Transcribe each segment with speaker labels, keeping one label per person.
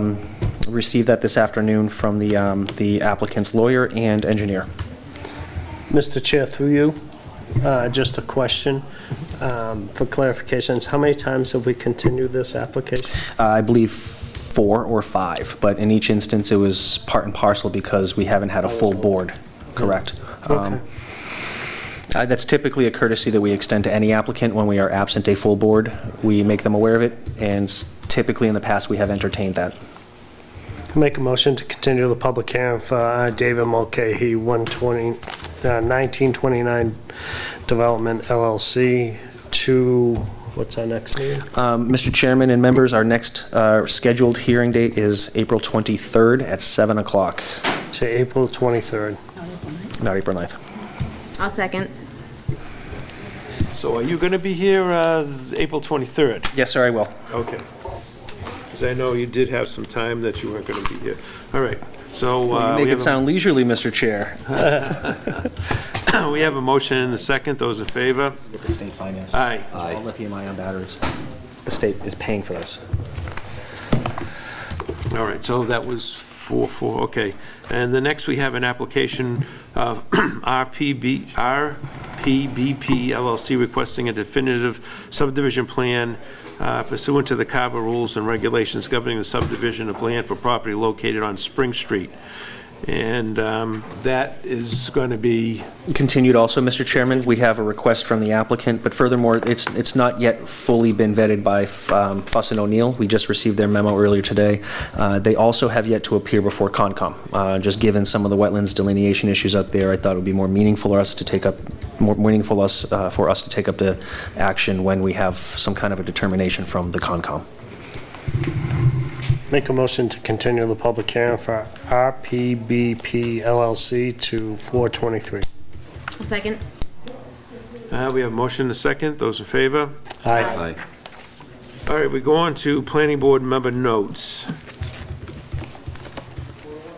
Speaker 1: Um, Received that this afternoon from the um, the applicant's lawyer and engineer.
Speaker 2: Mr. Chair, through you, uh, just a question um, for clarifications. How many times have we continued this application?
Speaker 1: Uh, I believe four or five, but in each instance, it was part and parcel because we haven't had a full board, correct? Um,
Speaker 2: Okay.
Speaker 1: Uh, That's typically a courtesy that we extend to any applicant when we are absent a full board. We make them aware of it, and s- typically in the past, we have entertained that.
Speaker 2: Make a motion to continue the public hearing for uh, David Mulcahy, 120, uh, 1929 Development LLC to, what's our next meeting?
Speaker 1: Um, Mr. Chairman and members, our next uh, scheduled hearing date is April 23rd at 7 o'clock,
Speaker 2: To April 23rd.
Speaker 1: not April 9th.
Speaker 3: I'll second.
Speaker 4: So are you going to be here uh, April 23rd?
Speaker 1: Yes, sir, I will.
Speaker 4: Okay. Because I know you did have some time that you weren't going to be here. All right, so
Speaker 1: You
Speaker 4: uh,
Speaker 1: make
Speaker 4: we
Speaker 1: it
Speaker 4: have
Speaker 1: sound leisurely, Mr. Chair.
Speaker 4: a- we have a motion and a second. Those in favor?
Speaker 1: With the state finance.
Speaker 4: Aye.
Speaker 1: All lithium-ion batteries. The state is paying for this.
Speaker 4: All right, so that was four, four, okay. And the next, we have an application of RPB, RPBP LLC requesting a definitive subdivision plan uh, pursuant to the CABA rules and regulations governing the subdivision of land for property located on Spring Street. And um, that is going to be,
Speaker 1: Continued also, Mr. Chairman, we have a request from the applicant, but furthermore, it's, it's not yet fully been vetted by um, Fuss and O'Neill. We just received their memo earlier today. Uh, They also have yet to appear before Concom. Uh, Just given some of the wetlands delineation issues out there, I thought it would be more meaningful for us to take up, more meaningful us, uh, for us to take up the action when we have some kind of a determination from the Concom.
Speaker 2: Make a motion to continue the public hearing for RPBP LLC to 423.
Speaker 3: I'll second.
Speaker 4: uh, we have a motion and a second. Those in favor?
Speaker 2: Aye.
Speaker 4: All right, we go on to planning board member notes.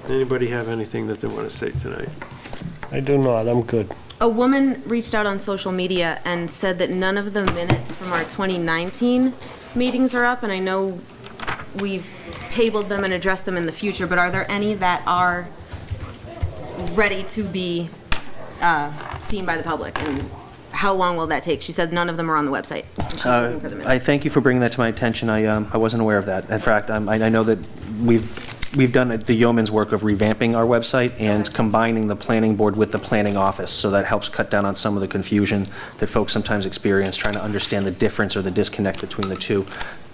Speaker 4: Anybody have anything that they want to say tonight?
Speaker 2: I do not, I'm good.
Speaker 3: A woman reached out on social media and said that none of the minutes from our 2019 meetings are up, and I know we've tabled them and addressed them in the future, but are there any that are ready to be uh, seen by the public? And how long will that take? She said none of them are on the website. and She's looking for the
Speaker 1: Uh, I
Speaker 3: minutes.
Speaker 1: thank you for bringing that to my attention. I, um, I wasn't aware of that. In fact, I'm- I, I know that we've, we've done the yeoman's work of revamping our website and combining the planning board with the planning office, so that helps cut down on some of the confusion that folks sometimes experience, trying to understand the difference or the disconnect between the two.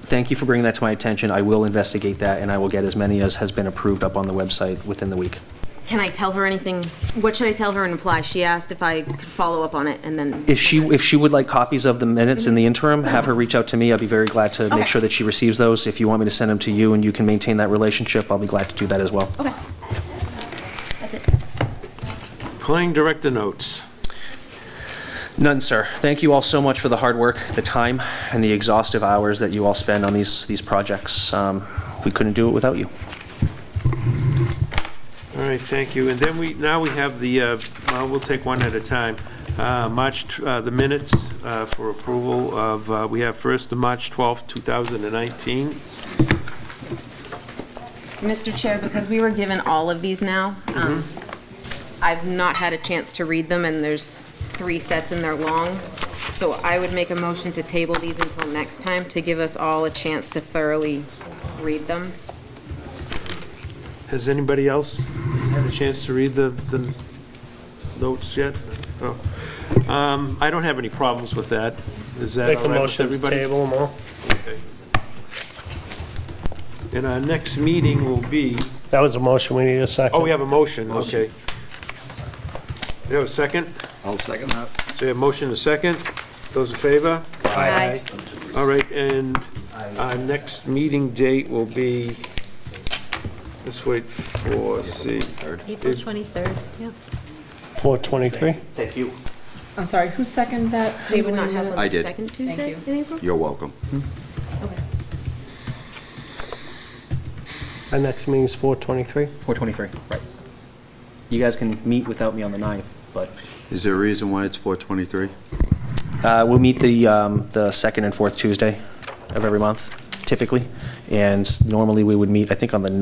Speaker 1: Thank you for bringing that to my attention. I will investigate that, and I will get as many as has been approved up on the website within the week.
Speaker 3: Can I tell her anything? What should I tell her in reply? She asked if I could follow up on it, and then
Speaker 1: If she, if she would like copies of the minutes in the interim, have her reach out to me. I'd be very glad to
Speaker 3: Okay.
Speaker 1: make sure that she receives those. If you want me to send them to you and you can maintain that relationship, I'll be glad to do that as well.
Speaker 3: Okay. That's it.
Speaker 4: Planning director notes.
Speaker 1: None, sir. Thank you all so much for the hard work, the time, and the exhaustive hours that you all spend on these, these projects. Um, We couldn't do it without you.
Speaker 4: All right, thank you. And then we, now we have the, uh, well, we'll take one at a time. Uh, March, tw- uh, the minutes uh, for approval of, uh, we have first the March 12th, 2019.
Speaker 3: Mr. Chair, because we were given all of these now, um,
Speaker 5: Mm-hmm.
Speaker 3: I've not had a chance to read them, and there's three sets and they're long. So I would make a motion to table these until next time to give us all a chance to thoroughly read them.
Speaker 4: Has anybody else had a chance to read the, the notes yet? Oh. Um, I don't have any problems with that. Is that
Speaker 2: Make
Speaker 4: all
Speaker 2: a
Speaker 4: right with
Speaker 2: motion to
Speaker 4: everybody?
Speaker 2: table them all.
Speaker 4: And our next meeting will be,
Speaker 2: That was a motion, we need a second.
Speaker 4: oh, we have a motion, okay. We have a second?
Speaker 5: I'll second that.
Speaker 4: So we have a motion and a second. Those in favor?
Speaker 3: Aye.
Speaker 4: All right, and our next meeting date will be, let's wait for, see.
Speaker 6: April 23rd, yeah.
Speaker 2: 423?
Speaker 1: Thank you.
Speaker 7: I'm sorry, who seconded that?
Speaker 3: We would not have one
Speaker 7: Tabling it?
Speaker 5: I
Speaker 3: the
Speaker 5: did.
Speaker 3: second Tuesday
Speaker 7: Thank
Speaker 3: in April?
Speaker 5: You're welcome.
Speaker 3: Okay.
Speaker 2: Our next meeting's 423?
Speaker 1: 423, right. You guys can meet without me on the 9th, but
Speaker 5: Is there a reason why it's 423?
Speaker 1: Uh, We'll meet the, um, the second and fourth Tuesday of every month, typically. And normally, we would meet, I think, on the